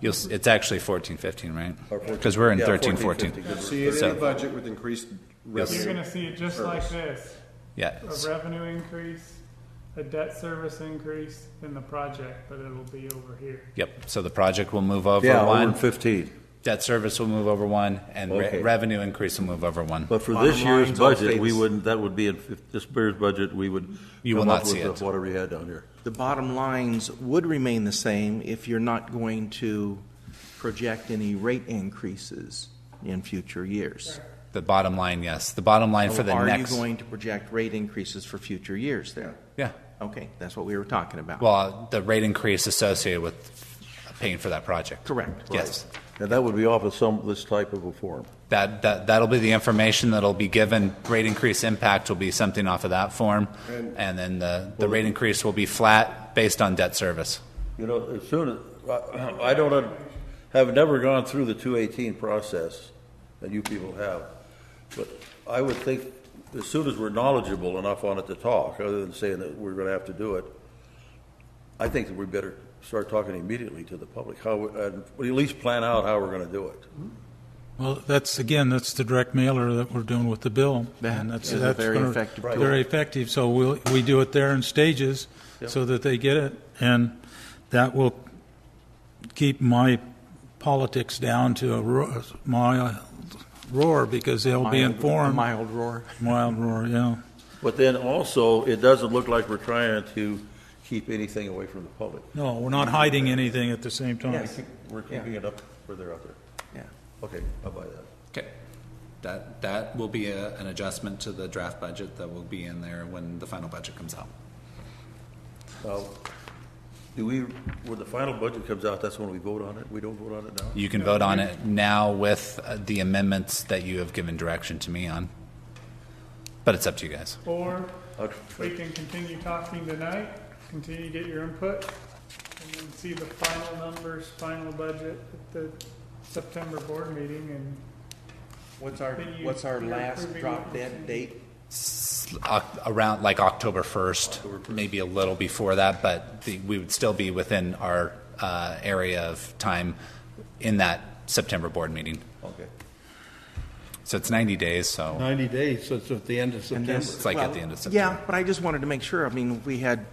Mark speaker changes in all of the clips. Speaker 1: You'll, s- it's actually fourteen, fifteen, right?
Speaker 2: Or 14.
Speaker 1: Because we're in
Speaker 2: Yeah,
Speaker 1: thirteen,
Speaker 2: 14,
Speaker 1: fourteen.
Speaker 2: 15, good.
Speaker 3: See it in
Speaker 1: So-
Speaker 3: the budget with increased
Speaker 1: Yes.
Speaker 3: revenue.
Speaker 4: You're gonna see it just like this,
Speaker 1: Yeah,
Speaker 4: a revenue increase, a debt service increase, and the project, but it'll be over here.
Speaker 1: yep. So the project will move over
Speaker 2: Yeah, over
Speaker 1: one,
Speaker 2: in fifteen.
Speaker 1: debt service will move over one, and re-
Speaker 2: Okay.
Speaker 1: revenue increase will move over one.
Speaker 2: But for
Speaker 3: Bottom
Speaker 2: this year's
Speaker 3: line's all
Speaker 2: budget, we
Speaker 3: fixed.
Speaker 2: wouldn't, that would be, in if this year's budget, we would.
Speaker 1: You will
Speaker 2: come up
Speaker 1: not see
Speaker 2: with
Speaker 1: it.
Speaker 2: Whatever you had down here.
Speaker 5: The bottom lines would remain the same if you're not going to project any rate increases in future years.
Speaker 1: The bottom line, yes. The bottom line for the
Speaker 5: Are you
Speaker 1: next,
Speaker 5: going to project rate increases for future years there?
Speaker 1: yeah.
Speaker 5: Okay, that's what we were talking about.
Speaker 1: Well, uh, the rate increase associated with paying for that project.
Speaker 5: Correct.
Speaker 1: Yes.
Speaker 2: Now, that would be off of some, this type of a form.
Speaker 1: That, that, that'll be the information that'll be given. Rate increase impact will be something off of that form. And then the, the rate increase will be flat based on debt service.
Speaker 2: You know, as soon as, I- I don't, un- have never gone through the two eighteen process that you people have. But I would think as soon as we're knowledgeable enough on it to talk, other than saying that we're gonna have to do it, I think that we better start talking immediately to the public, how, we- and we at least plan out how we're gonna do it.
Speaker 6: Well, that's, again, that's the direct mailer that we're doing with the bill.
Speaker 5: That
Speaker 6: and that's
Speaker 5: is a
Speaker 6: that's
Speaker 5: very
Speaker 6: gonna-
Speaker 5: effective
Speaker 2: Right. tool.
Speaker 6: Very effective, so we'll, we do it there in stages so that they get it. And that will keep my politics down to a roar, my roar, because they'll be
Speaker 5: Mild-
Speaker 6: informed.
Speaker 5: Mild roar.
Speaker 6: Mild roar, yeah.
Speaker 2: But then also, it doesn't look like we're trying to keep anything away from the public.
Speaker 6: No, we're not hiding anything at the same time.
Speaker 5: Yes.
Speaker 2: We're keeping it up where they're out there.
Speaker 5: Yeah.
Speaker 2: Okay, I'll buy that.
Speaker 7: Okay. That, that will be a, an adjustment to the draft budget that will be in there when the final budget comes out.
Speaker 2: Now, do we, when the final budget comes out, that's when we vote on it? We don't vote on it now?
Speaker 1: You can vote on it now with uh, the amendments that you have given direction to me on. But it's up to you guys.
Speaker 4: Or we
Speaker 2: Okay.
Speaker 4: can continue talking tonight, continue to get your input, and then see the final numbers, final budget at the September board meeting and
Speaker 5: What's our,
Speaker 4: Then you-
Speaker 5: what's our
Speaker 4: you're
Speaker 5: last
Speaker 4: approving
Speaker 5: drop
Speaker 4: what you're saying.
Speaker 5: dead date?
Speaker 1: S- Oc- Around like October 1st, maybe a little before that, but the- we would still be within our uh, area of time in that September board meeting.
Speaker 2: Okay.
Speaker 1: So it's 90 days, so
Speaker 2: 90 days, so it's at the end of
Speaker 5: And
Speaker 2: September.
Speaker 5: this-
Speaker 1: It's like at the
Speaker 5: well,
Speaker 1: end of
Speaker 5: Yeah,
Speaker 1: September.
Speaker 5: but I just wanted to make sure, I mean, we had,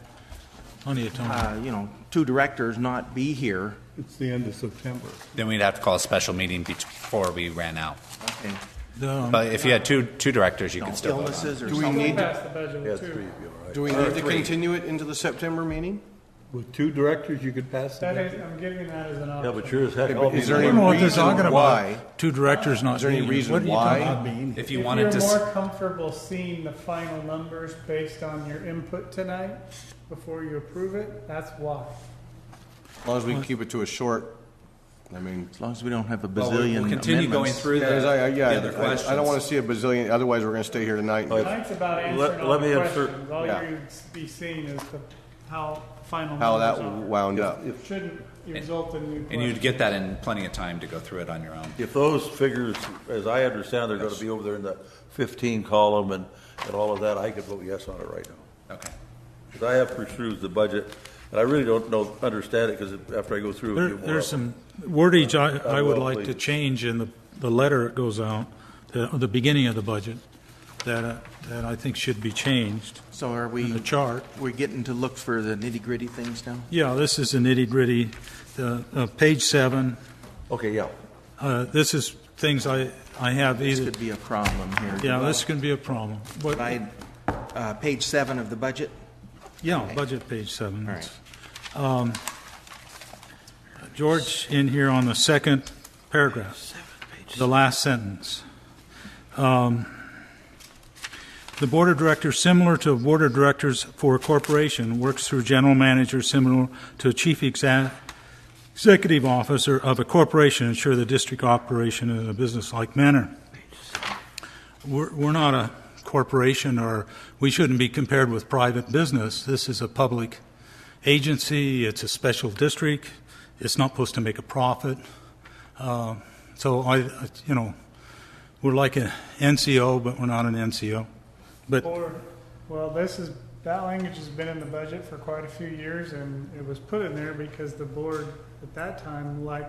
Speaker 6: Plenty of time.
Speaker 5: uh, you know, two directors not be here.
Speaker 8: It's the end of September.
Speaker 1: then we'd have to call a special meeting bet- before we ran out.
Speaker 5: Okay.
Speaker 6: The-
Speaker 1: But if you had two, two directors, you could still vote on it.
Speaker 5: Illnesses or
Speaker 8: Do we
Speaker 5: something.
Speaker 8: need-
Speaker 4: still pass the
Speaker 2: Yeah,
Speaker 4: budget
Speaker 2: three of
Speaker 4: too.
Speaker 2: you, all right.
Speaker 8: Do we need Uh, to continue it into the September meeting? With two directors, you could pass
Speaker 4: That
Speaker 8: it.
Speaker 4: is, I'm giving that as an
Speaker 2: Yeah,
Speaker 4: option.
Speaker 2: but you're as heck.
Speaker 8: is there
Speaker 6: I
Speaker 8: any
Speaker 6: don't know what they're
Speaker 8: reason
Speaker 6: talking
Speaker 8: why?
Speaker 6: about. Two directors not
Speaker 8: Is there any
Speaker 6: being here.
Speaker 8: reason
Speaker 6: What are you
Speaker 8: why?
Speaker 6: talking about?
Speaker 1: If you wanted to.
Speaker 4: If
Speaker 1: s-
Speaker 4: you're more comfortable seeing the final numbers based on your input tonight before you approve it, that's why.
Speaker 8: As long as we can keep it to a short, I mean.
Speaker 5: As long as we don't have a
Speaker 7: Well, we'll-
Speaker 5: bazillion
Speaker 7: We'll continue going
Speaker 5: amendments.
Speaker 7: through the,
Speaker 8: Yeah, I- I-
Speaker 7: the
Speaker 8: yeah,
Speaker 7: other questions.
Speaker 8: I- I don't want to see a bazillion, otherwise we're going to stay here tonight. and
Speaker 4: Tonight's about
Speaker 2: Let-
Speaker 4: answering all
Speaker 2: let me
Speaker 4: the
Speaker 2: answer-
Speaker 4: questions. All
Speaker 8: yeah.
Speaker 4: you'd be seeing is the, how final
Speaker 8: How that
Speaker 4: numbers are.
Speaker 8: wound up.
Speaker 4: Shouldn't result in new
Speaker 7: And you'd
Speaker 4: questions.
Speaker 7: get that in plenty of time to go through it on your own.
Speaker 2: If those figures, as I understand, they're going to be over there in the 15 column and, and all of that, I could vote yes on it right now.
Speaker 7: Okay.
Speaker 2: Because I have pursued the budget, and I really don't know, understand it, because after I go through.
Speaker 6: There,
Speaker 2: it, it'll-
Speaker 6: there's some wordage I, I would
Speaker 2: will,
Speaker 6: like to
Speaker 2: please.
Speaker 6: change in the, the letter that goes out, the, the beginning of the budget, that, uh, that I think should be changed
Speaker 5: So are
Speaker 6: in the
Speaker 5: we,
Speaker 6: chart.
Speaker 5: we're getting to look for the nitty gritty things now?
Speaker 6: Yeah, this is the nitty gritty, the, uh, page seven,
Speaker 2: Okay, yeah.
Speaker 6: uh, this is things I, I have
Speaker 5: This
Speaker 6: either,
Speaker 5: could be a problem here.
Speaker 6: yeah, this can be a problem. But-
Speaker 5: I, uh, page seven of the budget,
Speaker 6: Yeah, budget page seven.
Speaker 5: All
Speaker 6: Um, George, in here on the second paragraph, the last sentence. Um, The Board of Directors, similar to Board of Directors for a corporation, works through general manager similar to chief exa- executive officer of a corporation, ensure the district operation in a business-like manner we're, we're not a corporation or we shouldn't be compared with private business. This is a public agency, it's a special district, it's not supposed to make a profit. Uh, so I, I- you know, we're like an NCO, but we're not an NCO. But
Speaker 4: Or, well, this is, that language has been in the budget for quite a few years and it was put in there because the board at that time liked